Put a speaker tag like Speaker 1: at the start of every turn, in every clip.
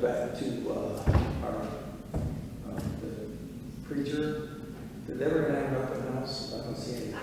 Speaker 1: back to, uh, our, uh, the preacher, did they ever have nothing else? I don't see anything.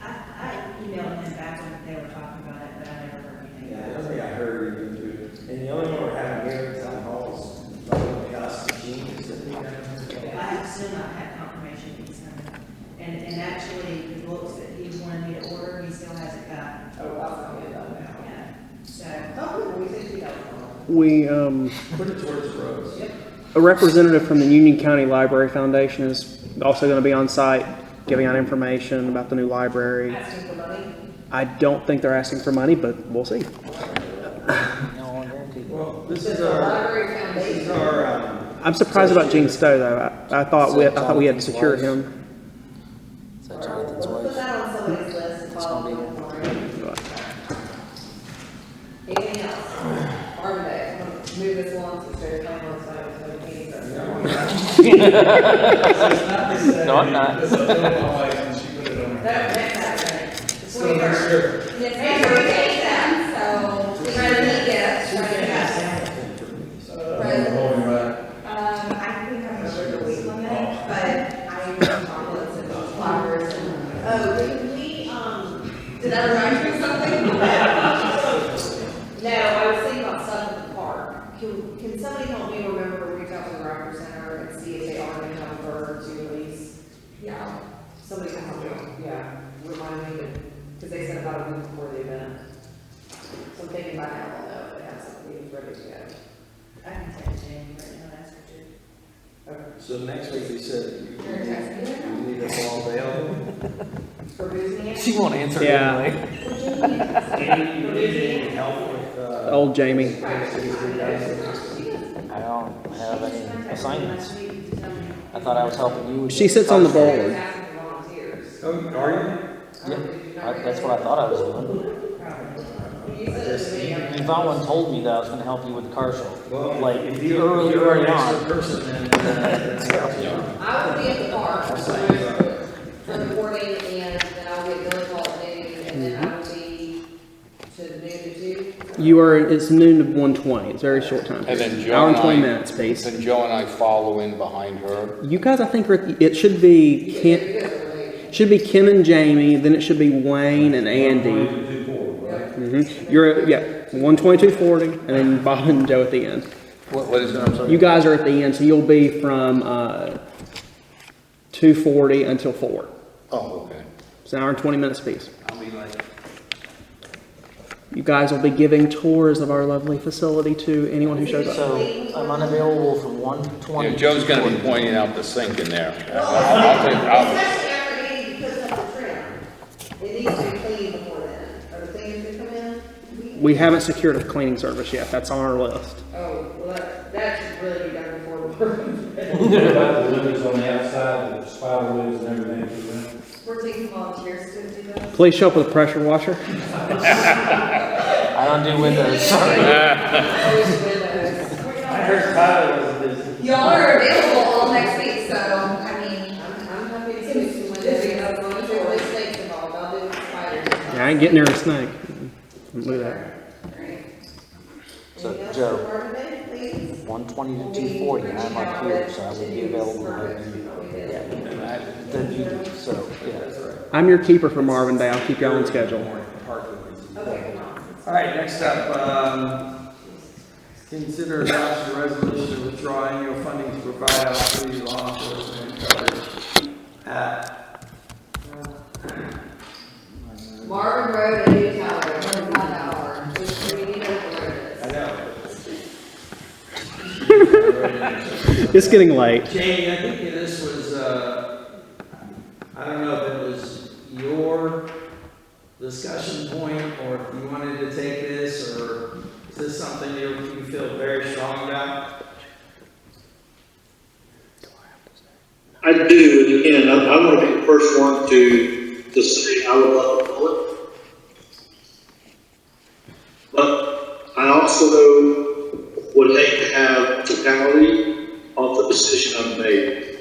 Speaker 2: I, I emailed him back when they were talking about it, but I never heard anything.
Speaker 1: Yeah, I don't think I heard even through, and the only one we're having here in town hall is, probably us, the genius, that we
Speaker 2: I
Speaker 1: have.
Speaker 2: have still not had confirmation that he's coming. And, and actually, the books that he wanted me to order, he still hasn't got,
Speaker 3: Oh, I'll forget about now.
Speaker 2: yeah. So,
Speaker 3: Hopefully, we think we don't know.
Speaker 4: We, um,
Speaker 1: Put it towards Rose.
Speaker 3: Yep.
Speaker 4: a representative from the Union County Library Foundation is also going to be on site giving out information about the new library.
Speaker 3: Asking for money.
Speaker 4: I don't think they're asking for money, but we'll see.
Speaker 1: Well, this is
Speaker 3: The
Speaker 1: our,
Speaker 3: library
Speaker 1: this is
Speaker 3: foundation.
Speaker 1: our, um,
Speaker 4: I'm surprised about Gene Stowe though. I, I thought we, I thought we had to secure him.
Speaker 5: So Jonathan's
Speaker 3: Put
Speaker 5: wife.
Speaker 3: that on somebody's list and follow up on it. Anything else? Arvin Day, I'm gonna move this along since there's no one sign, so we can't.
Speaker 1: you
Speaker 3: even-
Speaker 1: know,
Speaker 5: No, I'm not.
Speaker 6: Because I told my wife and she put it on her.
Speaker 3: That, that's happening. It's
Speaker 1: so next
Speaker 3: twenty-third.
Speaker 1: year,
Speaker 3: Yes, ma'am, we take them, so we're gonna need gifts, we're gonna have.
Speaker 6: Uh, I'm holding back.
Speaker 7: Um, I think I'm over the weight limit, but I am chocolates and flowers and, oh, did we, um,
Speaker 3: Did that remind you of something? No, I was thinking about Sun at the Park.
Speaker 7: can, can somebody help me remember, reach out to the Rocker Center and see if they are gonna have a bird to release?
Speaker 3: Yeah.
Speaker 7: Somebody can help me,
Speaker 3: Yeah,
Speaker 7: remind me, because they said about a week before the event. So I'm thinking by now, I'll know, if they have something ready to go.
Speaker 2: I can text Jamie right now, that's for sure.
Speaker 7: Okay.
Speaker 1: So next week, we said, you
Speaker 7: You're texting me
Speaker 1: you need a ball bail.
Speaker 7: for losing it?
Speaker 5: She won't answer it
Speaker 4: Yeah.
Speaker 5: anyway.
Speaker 1: Amy, you need any help with, uh?
Speaker 4: Old Jamie.
Speaker 1: next week, you guys?
Speaker 5: I don't have any assignments.
Speaker 2: Last week, you told me.
Speaker 5: I thought I was helping you. with
Speaker 4: She
Speaker 5: the
Speaker 4: sits on the
Speaker 5: project.
Speaker 4: board.
Speaker 7: Asking for volunteers.
Speaker 1: Oh, are
Speaker 5: Yeah, I- that's what I thought I was doing.
Speaker 3: you said it to me.
Speaker 5: And Valen told me that I was gonna help you with the car show.
Speaker 1: you? Well,
Speaker 5: Like,
Speaker 1: if
Speaker 5: early,
Speaker 1: you- if you're
Speaker 5: early
Speaker 1: an
Speaker 5: on.
Speaker 1: extra person, then, uh,
Speaker 3: I will be at the park
Speaker 1: Same.
Speaker 3: for the morning, and then I'll be at Village Hall at noon, and then I will be to noon to two.
Speaker 4: You are, it's noon to 1:20. It's a very short time.
Speaker 8: And then Joe
Speaker 4: Hour and
Speaker 8: and
Speaker 4: 20
Speaker 8: I-
Speaker 4: minutes, please.
Speaker 8: Then Joe and I follow in behind her.
Speaker 4: You guys, I think, are at the- it should be
Speaker 3: You
Speaker 4: Ken,
Speaker 3: guys are late.
Speaker 4: should be Kim and Jamie, then it should be Wayne and Andy.
Speaker 6: Two, four, right?
Speaker 4: Mhm. You're, yeah, 12240, and then Bob and Joe at the end.
Speaker 8: What, what is it, I'm sorry?
Speaker 4: You guys are at the end, so you'll be from uh, 240 until 4.
Speaker 8: Oh, okay.
Speaker 4: It's an hour and 20 minutes piece.
Speaker 8: I'll be like,
Speaker 4: You guys will be giving tours of our lovely facility to anyone who shows up.
Speaker 5: So I'm unavailable from one
Speaker 8: Yeah,
Speaker 5: twenty.
Speaker 8: Joe's gonna be pointing out the sink in there. I'll take- I'll-
Speaker 3: Especially after Andy puts up the trim. It needs to be clean before then, or the things that come in.
Speaker 4: We haven't secured a cleaning service yet. That's on our list.
Speaker 3: Oh, well, that, that should really be done before we're,
Speaker 6: About the windows on the outside, the spider webs and everything, you know?
Speaker 3: we're taking volunteers to do that.
Speaker 4: Please show up with a pressure washer.
Speaker 5: I don't do windows,
Speaker 1: I heard Tyler was busy.
Speaker 7: Y'all are available all next week, so, I mean,
Speaker 3: I'm, I'm happy to do some windows, you know, as long as there are snakes involved, I'll do the spiders.
Speaker 4: Yeah, I ain't getting near a snake. Look at that.
Speaker 3: Alright.
Speaker 5: So,
Speaker 3: Anything else
Speaker 5: Joe.
Speaker 3: for Marvin Day, please?
Speaker 5: one twenty
Speaker 3: We'll
Speaker 5: to
Speaker 3: be
Speaker 5: two forty, and I'm
Speaker 3: reaching
Speaker 5: up
Speaker 3: out
Speaker 5: here,
Speaker 3: with
Speaker 5: so I would be
Speaker 3: Denise
Speaker 5: available. to
Speaker 3: Burgess,
Speaker 5: help you.
Speaker 3: what we did.
Speaker 8: And I-
Speaker 5: Then you do, so, yeah.
Speaker 4: I'm your keeper for Marvin Day. I'll keep you on schedule.
Speaker 3: Okay, come on.
Speaker 1: All right, next up, um, consider adoption of resolution withdrawing annual funding to provide out free law enforcement coverage. Uh,
Speaker 3: Marvin Road and New Tower, one hour, which we need to work
Speaker 1: I
Speaker 3: this.
Speaker 1: know.
Speaker 4: It's getting late.
Speaker 1: Jamie, I think this was, uh, I don't know if it was your discussion point or if you wanted to take this or is this something you you feel very strong about?
Speaker 9: I do, and again, I, I want to be the first one to, to say I would love a bullet. But I also would hate to have totality of the decision I've made.